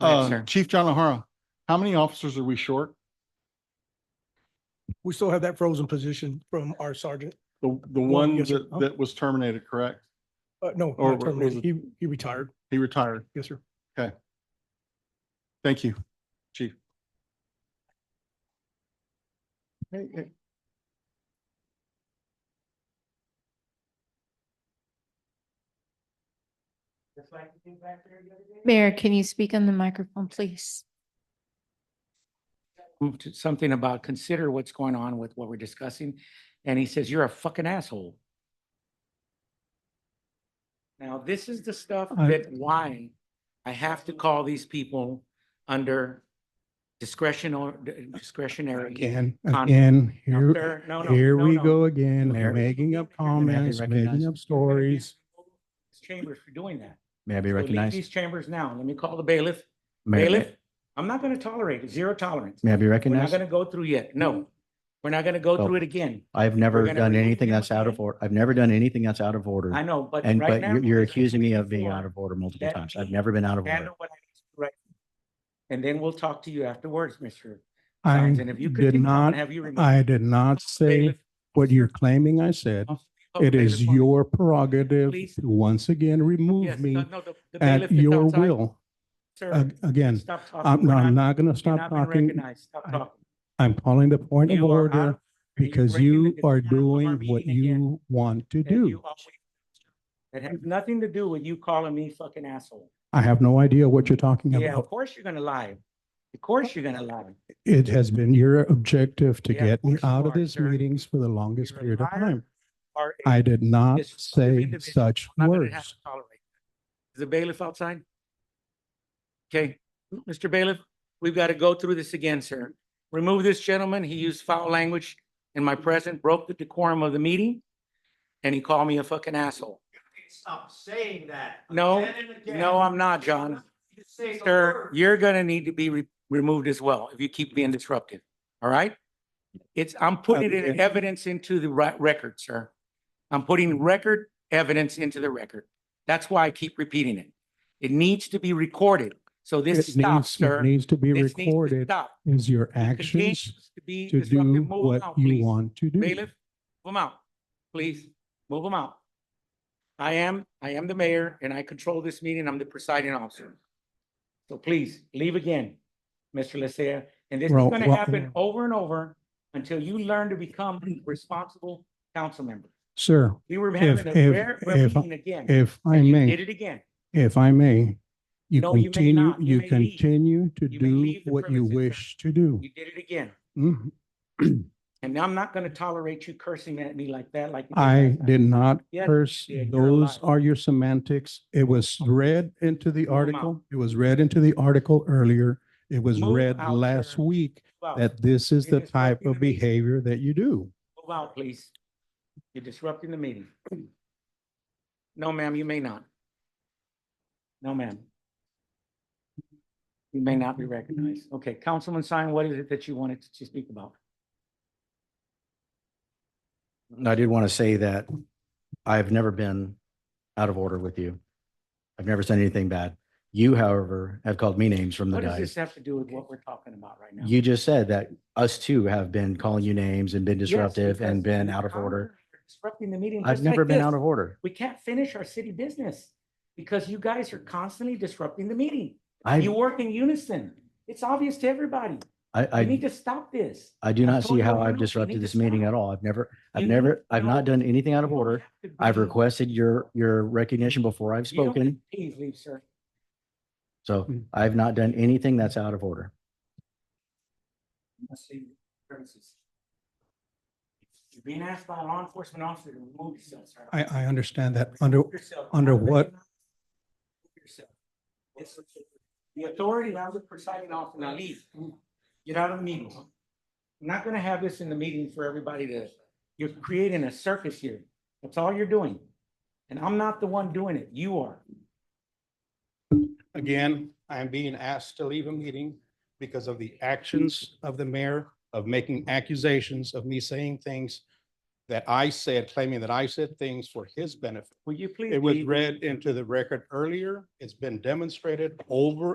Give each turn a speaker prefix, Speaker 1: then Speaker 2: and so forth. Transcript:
Speaker 1: Right,
Speaker 2: Uh,
Speaker 1: sir.
Speaker 2: Chief John O'Hara, how many officers are we short?
Speaker 3: We still have that frozen position from our sergeant.
Speaker 2: The, the
Speaker 3: One,
Speaker 2: one
Speaker 3: yes, sir.
Speaker 2: that, that was terminated, correct?
Speaker 3: Uh, no,
Speaker 2: Or
Speaker 3: not
Speaker 2: was
Speaker 3: terminated.
Speaker 2: it-
Speaker 3: He, he retired.
Speaker 2: He retired.
Speaker 3: Yes, sir.
Speaker 2: Thank you, chief.
Speaker 4: Mayor, can you speak on the microphone, please?
Speaker 1: moved something about consider what's going on with what we're discussing. And he says, you're a fucking asshole. Now, this is the stuff
Speaker 2: I-
Speaker 1: that why I have to call these people under discretion or discretionary.
Speaker 5: Again,
Speaker 1: con-
Speaker 5: again,
Speaker 1: No,
Speaker 5: here,
Speaker 1: sir, no, no,
Speaker 5: here
Speaker 1: no,
Speaker 5: we
Speaker 1: no.
Speaker 5: go again,
Speaker 6: Mayor.
Speaker 5: making up
Speaker 1: You're gonna have to
Speaker 5: comments, making
Speaker 6: recognize-
Speaker 5: up stories.
Speaker 1: This Chamber for doing that.
Speaker 6: May I
Speaker 1: So
Speaker 6: be
Speaker 1: leave
Speaker 6: recognized?
Speaker 1: These chambers now. Let me call the bailiff.
Speaker 6: May-
Speaker 1: Bailiff, I'm not going to tolerate it. Zero tolerance.
Speaker 6: May I be
Speaker 1: We're not
Speaker 6: recognized?
Speaker 1: going to go through yet. No, we're not going to go
Speaker 6: Oh.
Speaker 1: through it again.
Speaker 6: I've never
Speaker 1: gonna
Speaker 6: done
Speaker 1: remove
Speaker 6: anything
Speaker 1: him
Speaker 6: that's out of
Speaker 1: again.
Speaker 6: order. I've never done anything that's out of order.
Speaker 1: I know, but
Speaker 6: And,
Speaker 1: right
Speaker 6: but
Speaker 1: now.
Speaker 6: you're, you're
Speaker 1: because I
Speaker 6: accusing me
Speaker 1: told
Speaker 6: of being
Speaker 1: before,
Speaker 6: out of order multiple
Speaker 1: that
Speaker 6: times. I've
Speaker 1: he
Speaker 6: never been out of order.
Speaker 1: handle what I need to do right now. And then we'll talk to you afterwards, Mr.
Speaker 5: I
Speaker 1: Sines, and if you
Speaker 5: did
Speaker 1: continue on,
Speaker 5: not,
Speaker 1: have you removed.
Speaker 5: I did not say
Speaker 1: Bailiff,
Speaker 5: what
Speaker 1: officer,
Speaker 5: you're claiming I said.
Speaker 1: officer,
Speaker 5: It
Speaker 1: bailiff
Speaker 5: is
Speaker 1: on-
Speaker 5: your prerogative
Speaker 1: Oh, Please.
Speaker 5: to once again
Speaker 1: Yes,
Speaker 5: remove
Speaker 1: no,
Speaker 5: me
Speaker 1: no, the- the bailiff
Speaker 5: at
Speaker 1: is
Speaker 5: your
Speaker 1: outside.
Speaker 5: will.
Speaker 1: Sir,
Speaker 5: Ag- Again,
Speaker 1: stop talking.
Speaker 5: I'm,
Speaker 1: We're
Speaker 5: I'm
Speaker 1: not-
Speaker 5: not going to
Speaker 1: you're
Speaker 5: stop
Speaker 1: not being
Speaker 5: talking.
Speaker 1: recognized. Stop
Speaker 5: I-
Speaker 1: talking.
Speaker 5: I'm calling the point of
Speaker 1: You are out of
Speaker 5: order
Speaker 1: order. You're
Speaker 5: because
Speaker 1: breaking the
Speaker 5: you are
Speaker 1: decorum of
Speaker 5: doing
Speaker 1: our
Speaker 5: what
Speaker 1: meeting again,
Speaker 5: you want to
Speaker 1: as you
Speaker 5: do.
Speaker 1: always do. It has nothing to do with you calling me fucking asshole.
Speaker 5: I have no idea what you're talking
Speaker 1: Yeah,
Speaker 5: about.
Speaker 1: of course you're gonna lie. Of course you're gonna lie.
Speaker 5: It has been your objective to
Speaker 1: Yeah, of
Speaker 5: get me
Speaker 1: course you
Speaker 5: out of
Speaker 1: are,
Speaker 5: these
Speaker 1: sir.
Speaker 5: meetings for the longest
Speaker 1: You're a
Speaker 5: period of
Speaker 1: liar.
Speaker 5: time.
Speaker 1: Are a-
Speaker 5: I did not
Speaker 1: This sort of
Speaker 5: say
Speaker 1: individual
Speaker 5: such
Speaker 1: I'm not gonna have
Speaker 5: words.
Speaker 1: to tolerate. that. Is the bailiff outside? Okay, M- Mr. Bailiff, we've got to go through this again, sir. Remove this gentleman. He used foul language in my presence, broke the decorum of the meeting, and he called me a fucking asshole.
Speaker 7: Stop saying that.
Speaker 1: No,
Speaker 7: again and again.
Speaker 1: no, I'm not, John.
Speaker 7: You say the
Speaker 1: Sir,
Speaker 7: word.
Speaker 1: you're gonna need to be re- removed as well if you keep being disruptive, all right? It's, I'm putting it in evidence into the ri- record, sir. I'm putting record evidence into the record. That's why I keep repeating it. It needs to be recorded, so this
Speaker 5: It
Speaker 1: stops,
Speaker 5: needs, it
Speaker 1: sir.
Speaker 5: needs to be
Speaker 1: This needs to
Speaker 5: recorded
Speaker 1: stop.
Speaker 5: as your
Speaker 1: He
Speaker 5: actions
Speaker 1: continues to be
Speaker 5: to
Speaker 1: disruptive.
Speaker 5: do
Speaker 1: Move him
Speaker 5: what
Speaker 1: out,
Speaker 5: you
Speaker 1: please.
Speaker 5: want to do.
Speaker 1: Bailiff, move him out, please. Move him out. I am, I am the mayor and I control this meeting. I'm the presiding officer. So please, leave again, Mr. Lysia. And this is
Speaker 5: Well,
Speaker 1: gonna
Speaker 5: well-
Speaker 1: happen over and over until you learn to become a responsible council member.
Speaker 5: Sir,
Speaker 1: We were
Speaker 5: If-
Speaker 1: having a
Speaker 5: if-
Speaker 1: rare rare
Speaker 5: if-
Speaker 1: meeting again.
Speaker 5: if I
Speaker 1: and you Did
Speaker 5: may,
Speaker 1: it again.
Speaker 5: if I may, you
Speaker 1: No, you may
Speaker 5: continue,
Speaker 1: not. You
Speaker 5: you
Speaker 1: may leave.
Speaker 5: continue to
Speaker 1: You may
Speaker 5: do
Speaker 1: leave the
Speaker 5: what you
Speaker 1: premises, sir.
Speaker 5: wish to do.
Speaker 1: You did it again.
Speaker 5: Mhm.
Speaker 1: And I'm not gonna tolerate you cursing at me like that, like. you
Speaker 5: I
Speaker 1: last time.
Speaker 5: did not
Speaker 1: Yes, you
Speaker 5: curse.
Speaker 1: did. You're a
Speaker 5: Those
Speaker 1: liar.
Speaker 5: are your semantics. It was read into the
Speaker 1: Move 'em out.
Speaker 5: article. It was read into the article earlier. It was
Speaker 1: Move
Speaker 5: read
Speaker 1: out,
Speaker 5: last
Speaker 1: sir.
Speaker 5: week
Speaker 1: Move out.
Speaker 5: that this is
Speaker 1: You're
Speaker 5: the
Speaker 1: disrupting
Speaker 5: type of
Speaker 1: the meeting.
Speaker 5: behavior that you do.
Speaker 1: Move out, please. You're disrupting the meeting. No, ma'am, you may not. No, ma'am. You may not be recognized. Okay, Councilman Sine, what is it that you wanted to speak about?
Speaker 6: I did want to say that I've never been out of order with you. I've never said anything bad. You, however, have called me names from the
Speaker 1: What does this
Speaker 6: dais.
Speaker 1: have to do with what we're talking about right now?
Speaker 6: You just said that us too have been calling you names and been
Speaker 1: Yes,
Speaker 6: disruptive and
Speaker 1: because
Speaker 6: been
Speaker 1: you
Speaker 6: out of
Speaker 1: are
Speaker 6: order.
Speaker 1: Disrupting the meeting.
Speaker 6: I've
Speaker 1: just like
Speaker 6: never been out
Speaker 1: this.
Speaker 6: of order.
Speaker 1: We can't finish our city business because you guys are constantly disrupting the meeting. You
Speaker 6: I,
Speaker 1: work in unison. It's obvious to everybody.
Speaker 6: I,
Speaker 1: We need
Speaker 6: I,
Speaker 1: to stop this.
Speaker 6: I do
Speaker 1: I
Speaker 6: not
Speaker 1: told
Speaker 6: see
Speaker 1: you
Speaker 6: how
Speaker 1: over and over,
Speaker 6: I've
Speaker 1: you
Speaker 6: disrupted
Speaker 1: need
Speaker 6: this
Speaker 1: to
Speaker 6: meeting
Speaker 1: stop.
Speaker 6: at all. I've never,
Speaker 1: You
Speaker 6: I've
Speaker 1: need-
Speaker 6: never, I've
Speaker 1: no.
Speaker 6: not done anything out of
Speaker 1: You don't
Speaker 6: order.
Speaker 1: have to
Speaker 6: I've
Speaker 1: be-
Speaker 6: requested your, your recognition before I've
Speaker 1: You don't-
Speaker 6: spoken.
Speaker 1: Please leave, sir.
Speaker 6: So
Speaker 5: Mm.
Speaker 6: I've not done anything that's out of order.
Speaker 1: Let's see premises. You're being asked by a law enforcement officer to remove yourself, sir.
Speaker 5: I, I understand that under,
Speaker 1: Remove yourself.
Speaker 5: under
Speaker 1: Not
Speaker 5: what-
Speaker 1: recognize- remove yourself. It's- The authority, now the presiding officer, now leave. Get out of the meeting. I'm not gonna have this in the meeting for everybody to, you're creating a circus here. That's all you're doing. And I'm not the one doing it. You are.
Speaker 5: Again, I am being asked to leave a meeting because of the actions of the mayor of making accusations of me saying things that I said, claiming that I said things for his benefit.
Speaker 1: Will you please?
Speaker 5: It was
Speaker 1: leave?
Speaker 5: read into the record earlier. It's been demonstrated over